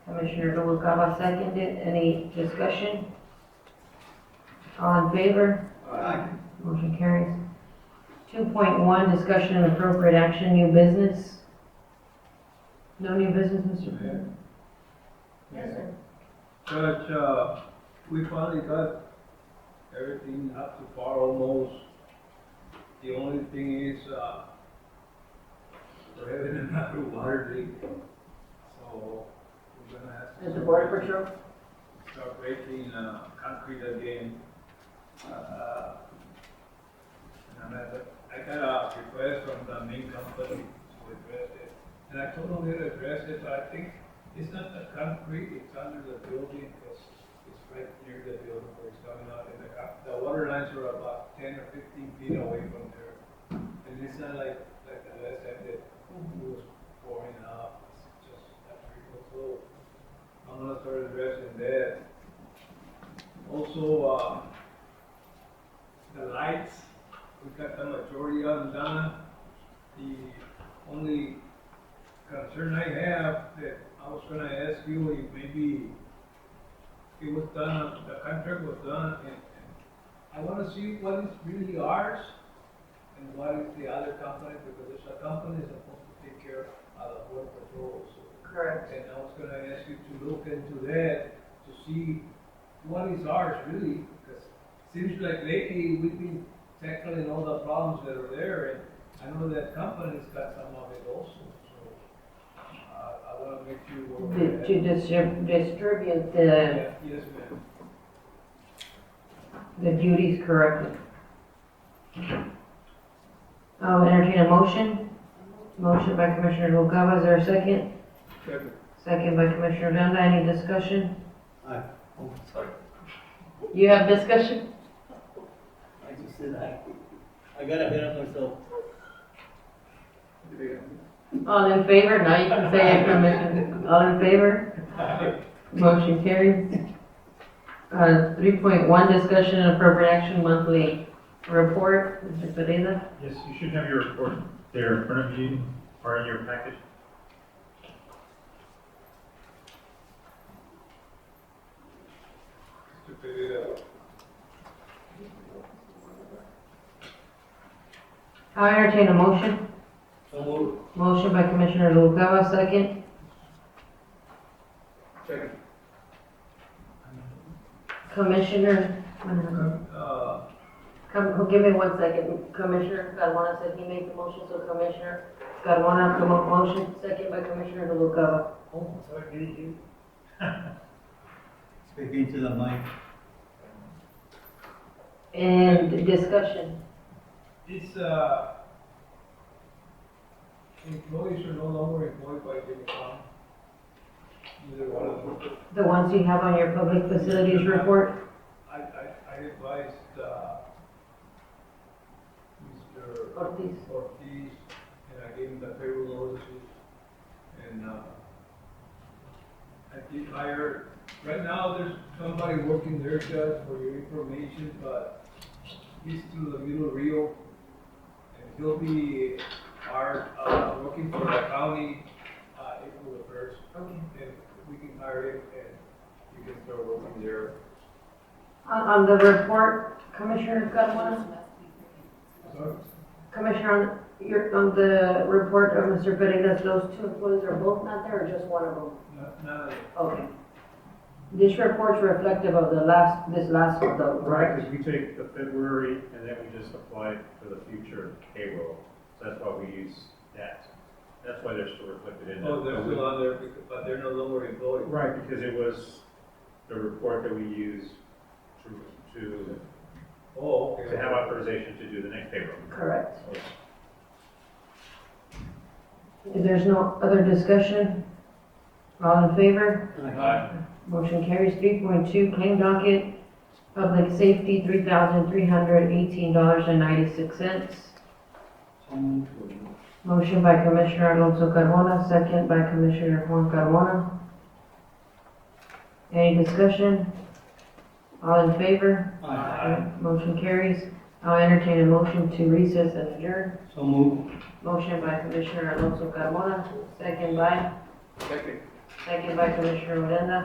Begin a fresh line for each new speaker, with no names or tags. Commissioner Noguera seconded. Any discussion? All in favor?
Aye.
Motion carries. 2.1, discussion and appropriate action, new business. No new business, Mr. President?
Judge, uh, we finally got everything up to par almost. The only thing is, uh, we're having another water leak, so we're gonna have to.
Is the border patrol?
Start breaking, uh, concrete again. Uh, And I got- I got a request from the main company to address it. And I told them they'd address it, but I think it's not the concrete, it's under the building, because it's right near the building where it's coming out. And the, co- the water lines are about ten or fifteen feet away from there. And it's not like, like the last time that it was pouring out, it's just that frequent flow. I'm gonna start addressing that. Also, uh, the lights, we got the majority of them done. The only concern I have that I was gonna ask you if maybe it was done, the contract was done, and, and I wanna see what is really ours and what is the other company, because it's a company that's supposed to take care of the border patrol, so.
Correct.
And I was gonna ask you to look into that, to see what is ours really, because seems like lately we've been tackling all the problems that are there, and I know that company's got some of it also, so, uh, I wanna make you aware
To
of
to
that.
distrib- distribute the
Yeah, Yes, ma'am.
the duties correctly. I'll entertain a motion. Motion by Commissioner Noguera, is there a second?
Second.
Second by Commissioner Odena, any discussion?
Aye. Oh, sorry,
You have discussion?
I just said aye. I got ahead of myself.
All in favor, now you can say it, Commissioner, all in favor? Motion carried. Uh, three point one, discussion and appropriate action monthly report, Mr. Pereira.
Yes, you should have your report there in front of you or in your package.
To figure it out.
I'll entertain a motion.
So moved.
Motion by Commissioner Noguera, second.
Second.
Commissioner,
Uh,
come, oh, give me one second. Commissioner Carmona said he made the motion, so Commissioner Carmona, the mo- motion, second by Commissioner Noguera.
Oh, sorry, didn't you? Speak into the mic.
And discussion.
These uh, employees are no longer employed by Jimmy Fallon. Either one of them.
The ones you have on your public facilities report,
I, I, I advised, uh, Mr.
Ortiz.
Ortiz, and I gave him the payroll notices. And, uh, I did hire, right now, there's somebody working there, Judge, for your information, but he's through the middle Rio. And he'll be, our uh, working for the county, uh, April the first.
Okay.
And we can hire him, and he can start working there.
On, on the report, Commissioner Carmona,
Sorry?
Commissioner, on your, on the report of Mr. Pereira, those two employees are both not there or just one of them?
No, no,
Okay. This report's reflective of the last, this last one though, right?
Because we take the February and then we just apply it for the future payroll. So that's why we use that. That's why they're still reflected in.
Oh,
that.
they're still on there, because- but they're no longer employed.
Right, because it was the report that we use to, to,
Oh,
to
okay.
have authorization to do the next payroll.
Correct. If there's no other discussion, all in favor? Motion carries. Three point two, claim docket, public safety, three thousand three hundred eighteen dollars and ninety-six cents.
So moved.
Motion by Commissioner Alonso Carmona, second by Commissioner Juan Carmona. Any discussion? All in favor?
Aye.
Motion carries. I'll entertain a motion to recess and adjourn.
So moved.
Motion by Commissioner Alonso Carmona, second by
Second.
Second by Commissioner Odena.